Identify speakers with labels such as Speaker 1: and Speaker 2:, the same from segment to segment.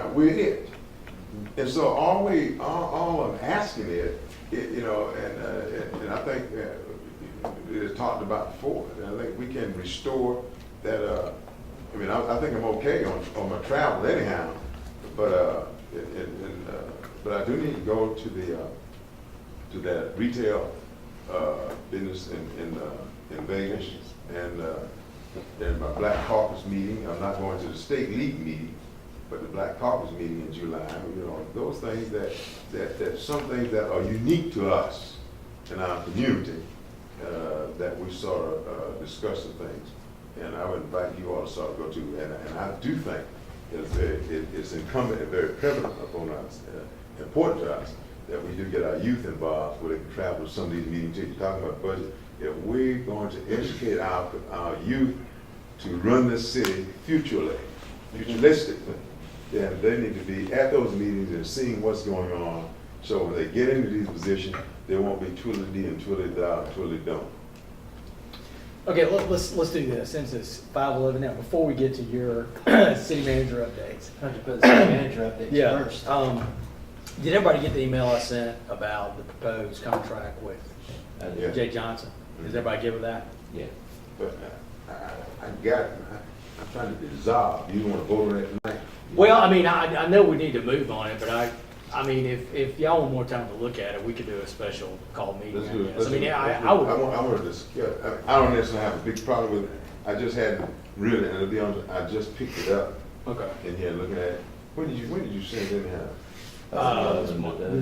Speaker 1: out, we're hit. And so all we, all, all I'm asking is, it- you know, and, uh, and- and I think, uh, it is talked about before, and I think we can restore that, uh, I mean, I, I think I'm okay on, on my travel anyhow, but, uh, it- it- and, uh, but I do need to go to the, uh, to that retail, uh, business in, in, uh, in Vegas, and, uh, and my Black Caucus meeting, I'm not going to the state league meeting, but the Black Caucus meeting in July, you know, those things that, that, that some things that are unique to us in our community, uh, that we sort of uh, discuss the things. And I would invite you all to sort of go to, and, and I do think it's, very- it- it's incumbent and very prevalent upon us, uh, important to us, that we do get our youth involved, where they can travel to some of these meetings, too. you're talking about budget. If we're going to educate our, our youth to run this city futurely, futuristically, then they need to be at those meetings and seeing what's going on. So when they get into these positions, they won't be twiddly-dee and twiddly-da, twiddly-don't.
Speaker 2: Okay, let- let's, let's do this, since it's five eleven now, before we get to your city manager updates.
Speaker 3: Have to put the city manager update
Speaker 2: Yeah,
Speaker 3: first.
Speaker 2: um, did everybody get the email I sent about the proposed contract with
Speaker 1: Yeah. Mm-hmm.
Speaker 2: Jay Johnson? Is everybody good with that?
Speaker 3: Yeah.
Speaker 1: But I, I- I got, I- I'm trying to dissolve, you wanna vote on it tonight?
Speaker 2: Well, I mean, I, I know we need to move on it, but I, I mean, if, if y'all want more time to look at it, we could do a special call meeting,
Speaker 1: Let's
Speaker 2: I
Speaker 1: do it.
Speaker 2: guess. I
Speaker 1: Let's
Speaker 2: mean,
Speaker 1: do it.
Speaker 2: I,
Speaker 1: Let's do it.
Speaker 2: I
Speaker 1: I
Speaker 2: would,
Speaker 1: want, I want to discuss, I, I don't necessarily have a big problem with it, I just had, really, and to be honest, I just picked it up
Speaker 2: okay.
Speaker 1: in here looking at, it. when did you, when did you send it in here?
Speaker 2: Uh,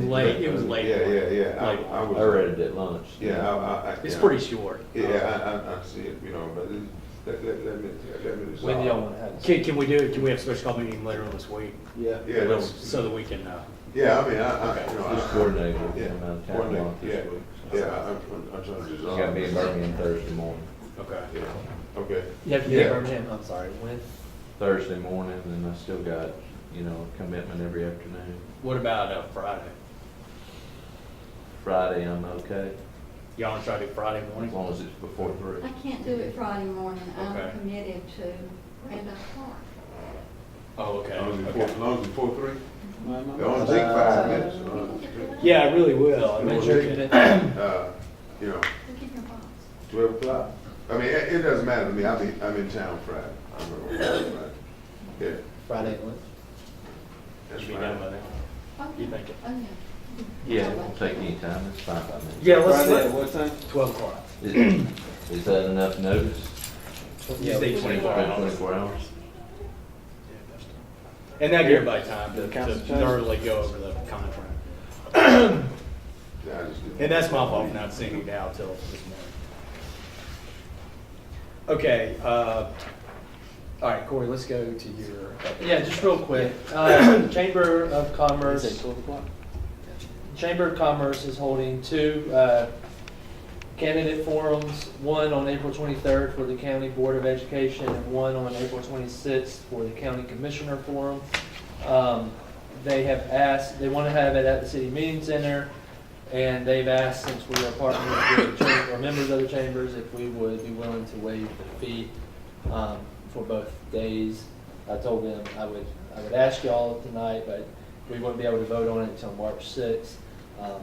Speaker 2: late, it was late.
Speaker 1: Yeah, yeah, yeah,
Speaker 2: Late.
Speaker 1: I, I was.
Speaker 4: I read it at lunch.
Speaker 1: Yeah, I, I. I-
Speaker 2: It's
Speaker 1: yeah.
Speaker 2: pretty short.
Speaker 1: Yeah, I, I, I see it, you know, but it- let, let, let me, let me dissolve.
Speaker 3: When y'all want to have.
Speaker 2: Can, can we do, it? can we have a special call meeting later on this week?
Speaker 3: Yeah.
Speaker 1: Yeah, no,
Speaker 2: So that we can, uh,
Speaker 1: yeah, I mean, I, I,
Speaker 2: Okay.
Speaker 1: you know. I-
Speaker 4: Just coordinate with
Speaker 1: Yeah,
Speaker 4: him out of town
Speaker 1: coordinate,
Speaker 4: lunch this
Speaker 1: yeah.
Speaker 4: week.
Speaker 1: Yeah, I- I'm, I'm trying to
Speaker 4: He's
Speaker 1: dissolve.
Speaker 4: got me in Birmingham Thursday morning,
Speaker 2: okay.
Speaker 1: Yeah, okay,
Speaker 3: You have to be in
Speaker 1: Yeah.
Speaker 3: Birmingham, I'm sorry, when?
Speaker 4: Thursday morning, and I still got, you know, commitment every afternoon.
Speaker 2: What about, uh, Friday?
Speaker 4: Friday, I'm okay,
Speaker 2: Y'all wanna try to do Friday
Speaker 4: as
Speaker 2: morning?
Speaker 4: long as it's before three.
Speaker 5: I can't do it Friday morning,
Speaker 2: Okay.
Speaker 5: I'm committed to Randolph Park.
Speaker 2: Oh, okay.
Speaker 1: long as it's
Speaker 2: okay.
Speaker 1: four, long as it's four, three, it only take five minutes. you know.
Speaker 2: Yeah, I really will. I mean,
Speaker 1: When's
Speaker 3: When's your
Speaker 1: your
Speaker 3: commitment?
Speaker 1: Uh, you know,
Speaker 5: Look in your box.
Speaker 1: twelve o'clock. I mean, it, it doesn't matter to me. I'll be, I'm in town Friday. I'm gonna work Friday. Yeah,
Speaker 3: Friday at lunch?
Speaker 1: that's
Speaker 2: Be done by
Speaker 1: fine.
Speaker 2: then.
Speaker 5: Okay.
Speaker 2: You think it-
Speaker 5: Oh, yeah.
Speaker 4: Yeah, it won't take any time, it's fine by me.
Speaker 2: Yeah, let's,
Speaker 6: Friday
Speaker 2: let
Speaker 6: at what time?
Speaker 2: twelve o'clock.
Speaker 4: Is is that enough notice?
Speaker 2: You say twenty-four
Speaker 4: About
Speaker 2: hours.
Speaker 4: Twenty-four hours?
Speaker 2: And that give everybody time to, to
Speaker 6: Council Chair?
Speaker 2: thoroughly go over the contract.
Speaker 1: Yeah, I just do-
Speaker 2: And that's my fault for not seeing you now till this morning. Okay, uh, all right, Corey, let's go to your.
Speaker 3: Yeah, just real quick, uh, Chamber of Commerce.
Speaker 6: It's at twelve o'clock.
Speaker 3: Chamber of Commerce is holding two uh, candidate forums, one on April 23rd for the County Board of Education and one on April 26th for the County Commissioner Forum. Um, They have asked, they want to have it at the City Meeting Center, and they've asked, since we are partners with the chamber, or members of the chambers, if we would be willing to waive the fee um, for both days. I told them I would, I would ask y'all tonight, but we wouldn't be able to vote on it until March sixth. Um,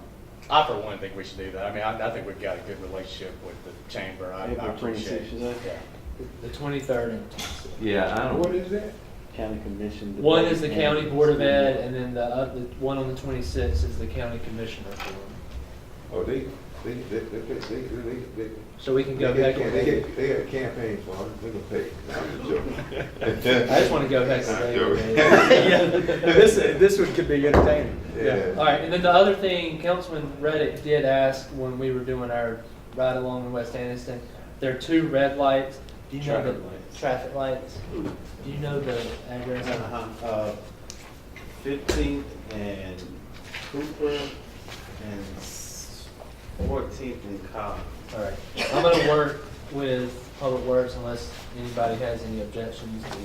Speaker 2: I for one think we should do that. I mean, I, I think we've got a good relationship with the chamber. I I
Speaker 6: April
Speaker 2: appreciate
Speaker 6: 26th, is that?
Speaker 2: it. Yeah.
Speaker 3: The twenty-third and twenty-sixth.
Speaker 4: Yeah, I
Speaker 1: What
Speaker 4: don't,
Speaker 1: is that?
Speaker 6: County commission.
Speaker 3: One is the county board of ed, and then the, oth- the one on the twenty-sixth is the county commissioner forum.
Speaker 1: Oh, they, they, they, they, they, they, they. they-
Speaker 3: So we can
Speaker 1: They
Speaker 3: go
Speaker 1: got,
Speaker 3: back
Speaker 1: they
Speaker 3: and,
Speaker 1: got, they got campaigns for it. They can pay. I'm just joking.
Speaker 3: I just wanna go back to
Speaker 1: I'm
Speaker 3: the.
Speaker 2: Yeah, this, this one could be entertaining.
Speaker 1: Yeah.
Speaker 3: All right, and then the other thing, Councilman Reddick did ask when we were doing our ride along in West Anniston, there are two red lights. Do you know the?
Speaker 6: Traffic lights.
Speaker 3: Traffic lights. Do you know the address?
Speaker 6: uh, Fifteenth and Cooper and fourteenth and Cobb.
Speaker 3: All right, I'm gonna work with Public Works unless anybody has any objections to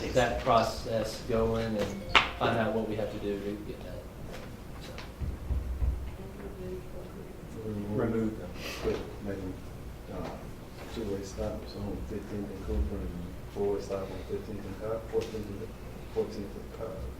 Speaker 3: get that process going and find out what we have to do to get that. Remove them.
Speaker 6: Quit making, uh, two-way stops on fifteenth and Cooper and four-way stop on fifteenth and Cobb, fourteenth and, fourteenth and Cobb.